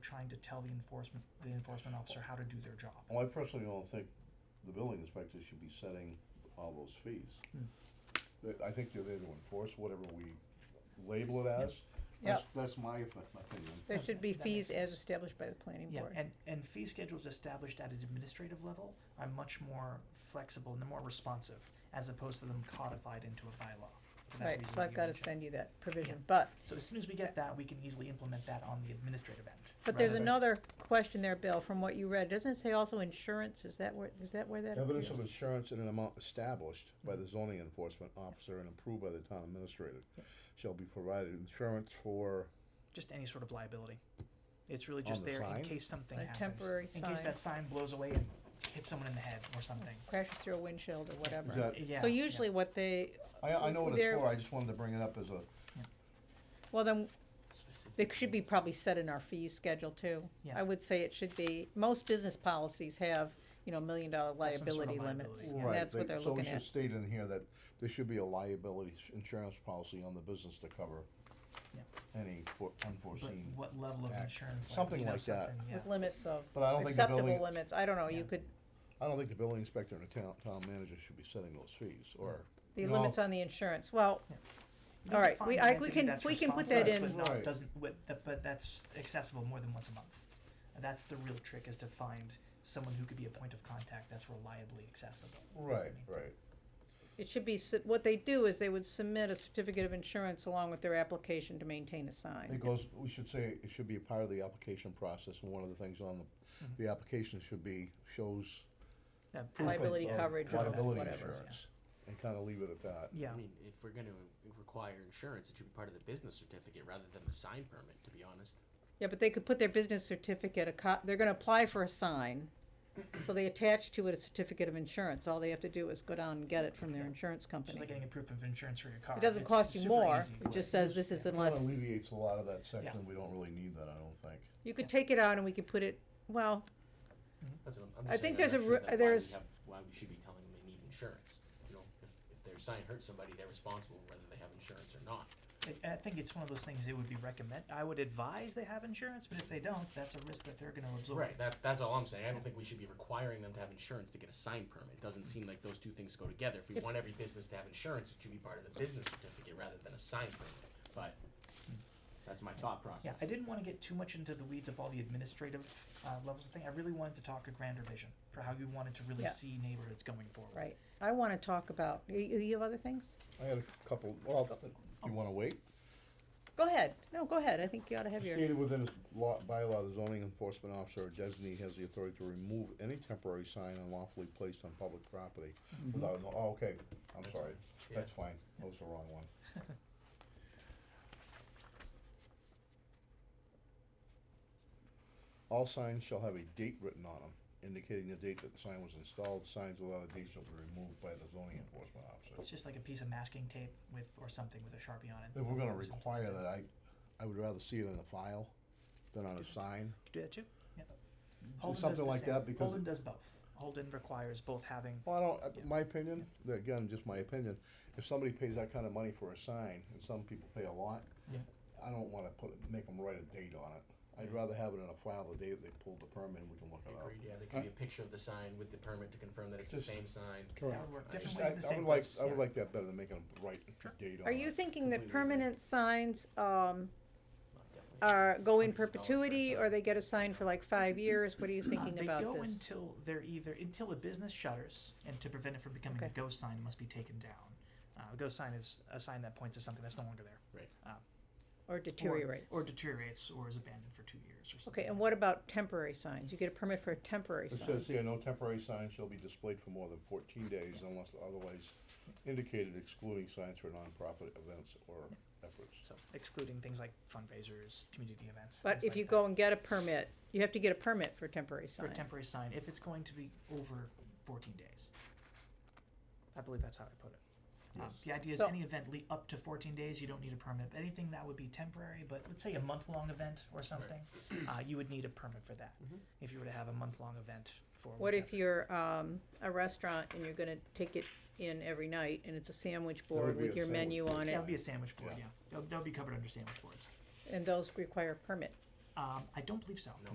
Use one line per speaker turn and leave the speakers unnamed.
trying to tell the enforcement, the enforcement officer how to do their job.
Well, I personally don't think the building inspector should be setting all those fees.
Hmm.
They- I think they're there to enforce whatever we label it as.
Yeah.
That's, that's my opinion.
There should be
That makes
fees as established by the planning
Yeah,
board.
and, and fee schedules established at an administrative level are much more flexible and more responsive, as opposed to them codified into a bylaw. for that
Right,
reason
so
that
I've
you
gotta
mentioned.
send you that
Yeah.
provision, but,
So as soon as we get that, we can easily implement that on the administrative end.
but there's
rather than-
another question there, Bill, from what you read, doesn't it say also insurance, is that where, is that where that
Evidence
appears?
of insurance in an amount established by the zoning enforcement officer and approved by the town administrator shall be provided insurance for,
Just any sort of liability. It's really
On
just
the
there in
sign?
case something
A
happens.
temporary
In case
sign.
that sign blows away and hits someone in the head or something.
Crashes through a windshield or
is
whatever.
that,
Yeah.
So
yeah.
usually what they,
I, I know what it's
There-
for, I just wanted to bring it up as a,
well then,
Specific-
It should be probably set in our fee schedule too.
Yeah.
I would say it should be, most business policies have, you know, million dollar
Have some sort of
liability limits.
liability,
and
yeah.
right,
That's
they-
what they're
so we
looking
should
at.
state in here that there should be a liability s- insurance policy on the business to cover
Yeah.
any for-
But
unforeseen.
what level of
act.
insurance? like,
Something
you know,
like that.
something, yeah.
With limits of,
But I don't think the
acceptable
building-
limits, I don't know, you
Yeah.
could,
I don't think the building inspector and the town, town manager should be setting those fees, or.
the
No.
limits on the insurance, well,
You don't
All right,
define
we-
an
I- we
entity
can-
that's
we can put that
responsible, But
in.
not,
Right.
doesn't, but, that- but that's accessible more than once a month. That's the real trick, is to find someone who could be a point of contact that's reliably accessible. is the main
Right,
thing.
right.
it should be, su- what they do is they would submit a certificate of insurance along with their application to maintain a sign.
It goes, we should say, it should be a part of the application process, and one of the things on
Mhm.
the, the application should be, shows
Yeah,
Mm-hmm. proof of-
Liability
of
coverage or
Liability
whatever, yeah.
insurance, and kinda leave it at that.
Yeah,
I mean, if we're gonna require insurance, it should be part of the business certificate rather than the sign permit, to be honest.
Mm-hmm.
Yeah, but they could put their business certificate, a co- they're gonna apply for a sign, so they attach to it a certificate of insurance, all they have to do is go down and get it from their insurance
it's
company.
just like getting a proof of insurance for your car.
It doesn't
It's
cost you
super
more,
easy.
it just says this is
Kinda
unless,
alleviates a lot of that section, we don't really need that, I don't think.
you could take it out and we could put it, well,
That's what I'm, I'm
I
just
think
saying,
there's
I'm
a
not sure
re-
that why
there's-
we have- Why we should be telling them they need insurance, you know, if, if their sign hurts somebody, they're responsible whether they have insurance or not.
I- I think it's one of those things they would be recommend, I would advise they have insurance, but if they don't, that's a risk that they're gonna absorb.
Right, that's, that's all I'm saying, I don't think we should be requiring them to have insurance to get a sign permit, it doesn't seem like those two things go together. If we
If-
want every business to have insurance, it should be part of the business certificate rather than a sign permit, but that's my thought process.
Yeah, I didn't wanna get too much into the weeds of all the administrative, uh, levels of thing, I really wanted to talk a grander vision for how you wanted to really
Yeah.
see neighborhoods going forward.
right, I wanna talk about, you, you have other things?
I had a couple, well, you wanna wait?
Go ahead, no, go ahead, I think you ought to have your,
Stated within his law, bylaw, the zoning enforcement officer or designee has the authority to remove any temporary sign unlawfully placed on public property without, no- oh, okay, I'm
That's
sorry,
fine. Yeah.
that's fine, that was the wrong one. All signs shall have a date written on them, indicating the date that the sign was installed, signs without a date shall be removed by the zoning enforcement
It's
officer.
just like a piece of masking tape with, or something with a Sharpie on it.
If we're gonna
or something.
require that, I, I would rather see it in the file than on a sign.
Do that too? Yeah. Holden does
something
the
like
same.
that because-
Holden does both. Holden requires both having,
Well, I don't, uh,
Yeah.
my opinion, that- again, just my opinion, if somebody pays that kind of money for a sign, and some people pay a lot,
Yeah.
I don't wanna put, it- make them write a date on it. I'd
Yeah.
rather have it in a file the day that they pulled the permit, and we can look it up.
Agreed, yeah, there could be a picture of the sign with the permit to confirm that it's the
Just-
same sign.
that would work different ways
I,
in the
I
same
would like,
place.
I
yeah.
would like that better than making them write a
Sure.
date on it.
are you thinking that
Completely agree.
permanent signs, um,
Definitely.
are, go in
$100 for a
perpetuity, or
sign.
they get a sign for like five years, what are you
Uh,
thinking
they
about
go
this?
until they're either until the business shutters, and to prevent it from becoming a
Okay.
ghost sign, it must be taken down. Uh, a ghost sign is a sign that points to something that's no longer there.
Right.
Uh,
Or deteriorates?
Or, or deteriorates, or is abandoned for two years, or something.
Okay, and
like
what about temporary signs? You get a permit for a temporary
It
sign.
says here, no temporary sign shall be displayed for more than fourteen days unless otherwise indicated excluding signs for nonprofit events or efforts.
that. So excluding things like fundraisers, community events.
But
things
if
like
you
that.
go and get a permit, you have to get a permit for a temporary
for a
sign.
temporary sign, if it's going to be over 14 days, I believe that's how I put it. Um,
Yes.
the idea is
So-
any event le- up to 14 days, you don't need a permit. Anything that would be temporary, but let's say a month long event or something, uh, you would need a permit for that.
Mhm.
If you were to have a month long event for
Mm-hmm. What if
whichever.
you're, um, a restaurant and you're gonna take it in every night and it's a sandwich
would
board
be
with
a
your
sandwich
menu
board.
on
that
it?
would be a sandwich board,
Yeah.
yeah. That would be covered under sandwich boards.
And those require a permit.
Um, I don't believe so.
No.